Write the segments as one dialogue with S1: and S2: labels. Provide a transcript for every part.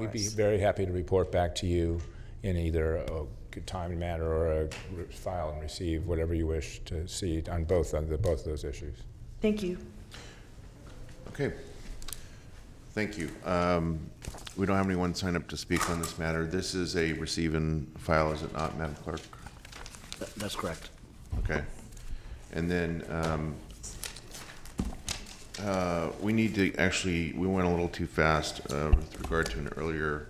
S1: We'd be very happy to report back to you in either a good time and manner or a re- file and receive, whatever you wish to see on both, on the, both of those issues.
S2: Thank you.
S3: Okay. Thank you. Um, We don't have anyone sign up to speak on this matter. This is a receive and file, is it not, Madam Clerk?
S4: That- That's correct.
S3: Okay. And then um, uh, we need to, actually, we went a little too fast uh, with regard to an earlier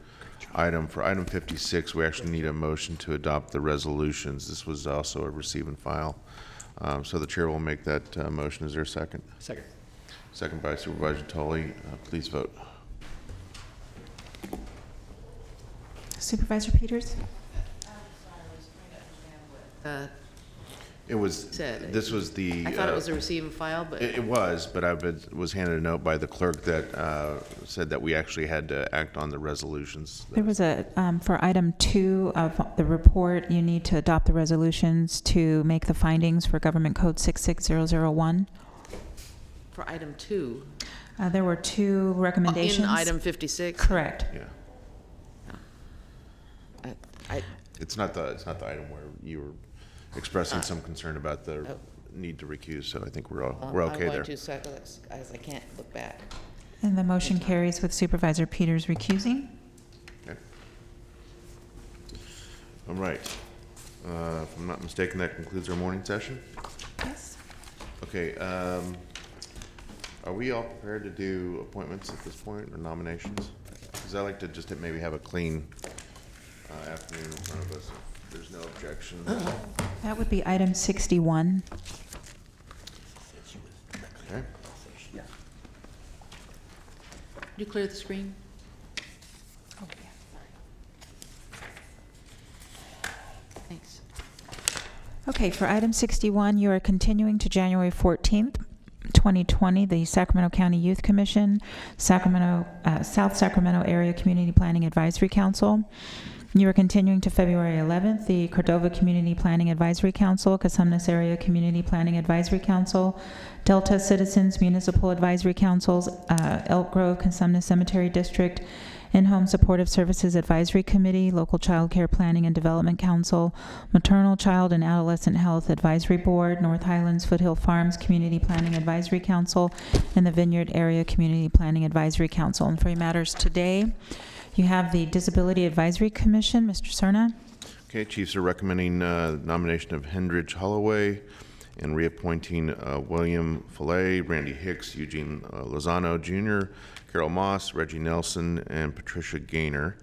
S3: item. For item 56, we actually need a motion to adopt the resolutions. This was also a receive and file. Um, So the chair will make that uh, motion. Is there a second?
S4: Second.
S3: Second by Supervisor Tully. Uh, Please vote.
S5: Supervisor Peters?
S6: Uh,
S3: It was,
S6: Said-
S3: this was the.
S6: I thought it
S3: uh,
S6: was a receive and file, but
S3: It it was, but I was- was handed a note by the clerk that uh, said that we actually had to act on the resolutions.
S5: There was a, um, for item two of the report, you need to adopt the resolutions to make the findings for Government Code 66001.
S6: for item two,
S5: Uh, There were two
S6: in
S5: recommendations.
S6: item 56.
S5: Correct.
S3: Yeah.
S6: I- I-
S3: It's not the, it's not the item where you were expressing some concern about the
S6: Oh.
S3: need to recuse, so I think we're all,
S6: um,
S3: we're okay
S6: I'm going
S3: there.
S6: to, so I- I can't look back.
S5: And the motion carries with Supervisor Peters recusing.
S3: Okay. All right. Uh, If I'm not mistaken, that concludes our morning session.
S5: Yes.
S3: Okay, um, are we all prepared to do appointments at this point, or nominations? Because I like to just maybe have a clean uh, afternoon in front of us, if there's no objection.
S5: That would be item 61.
S3: Okay,
S6: you clear the screen? Thanks.
S5: Okay, for item 61, you are continuing to January 14th, 2020, the Sacramento County Youth Commission, Sacramento, uh, South Sacramento Area Community Planning Advisory Council. You are continuing to February 11th, the Cordova Community Planning Advisory Council, Casumnas Area Community Planning Advisory Council, Delta Citizens Municipal Advisory Councils, uh, Elk Grove, Casumnas Cemetery District, in-Home Supportive Services Advisory Committee, Local Child Care Planning and Development Council, Maternal Child and Adolescent Health Advisory Board, North Highlands Foothill Farms Community Planning Advisory Council, and the Vineyard Area Community Planning Advisory Council. And for your matters today, you have the Disability Advisory Commission, Mr. Serna.
S3: Okay, chiefs are recommending uh, nomination of Hendridge Holloway and reappointing uh, William Fillet, Randy Hicks, Eugene uh, Lozano Jr., Carol Moss, Reggie Nelson, and Patricia Gaynor.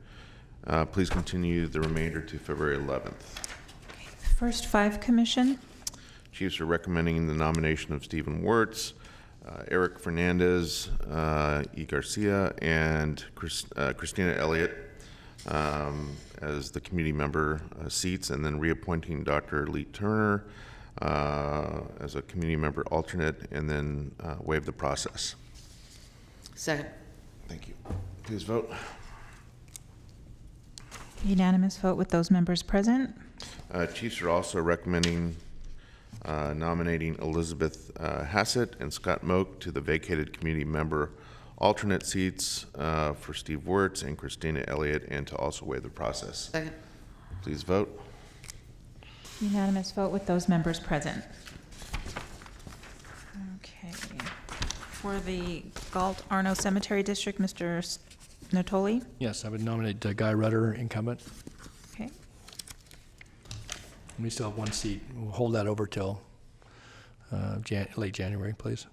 S3: Uh, Please continue the remainder to February 11th.
S5: First Five Commission,
S3: Chiefs are recommending the nomination of Stephen Wertz, uh, Eric Fernandez, uh, E. Garcia, and Chris- uh, Christina Elliott um, as the committee member uh, seats, and then reappointing Dr. Lee Turner uh, as a committee member alternate, and then uh, waive the process.
S6: Second.
S3: Thank you. Please vote.
S5: unanimous vote with those members present.
S3: Uh, Chiefs are also recommending uh, nominating Elizabeth uh, Hassett and Scott Moak to the vacated community member alternate seats uh, for Steve Wertz and Christina Elliott, and to also waive the process.
S6: Second.
S3: Please vote.
S5: Unanimous vote with those members present. Okay. For the Galt Arno Cemetery District, Mr. S- Natoli.
S7: Yes, I would nominate uh, Guy Rutter, incumbent.
S5: Okay.
S7: We still have one seat. We'll hold that over till uh, Jan- late January, please.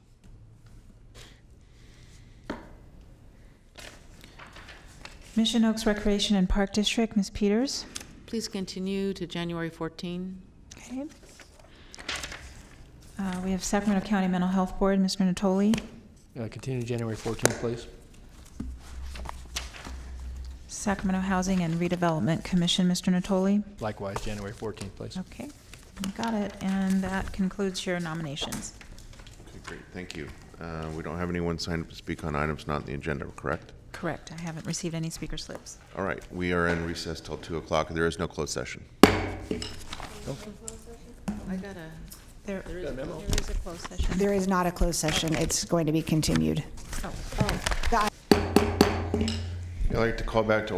S5: Mission Oaks Recreation and Park District, Ms. Peters.
S6: Please continue to January 14.
S5: Okay. Uh, We have Sacramento County Mental Health Board, Mr. Natoli.
S7: Uh, Continue January 14th, please.
S5: Sacramento Housing and Redevelopment Commission, Mr. Natoli.
S7: Likewise, January 14th, please.
S5: Okay, you got it. And that concludes your nominations.
S3: Okay, great, thank you. Uh, We don't have anyone signed up to speak on items not on the agenda, correct?
S5: Correct. I haven't received any speaker slips.
S3: All right, we are in recess till 2 o'clock. There is no closed session.
S6: I got a,
S5: There,
S6: there is a memo.
S8: There is not a closed session. It's going to be continued.
S3: I'd like to call back to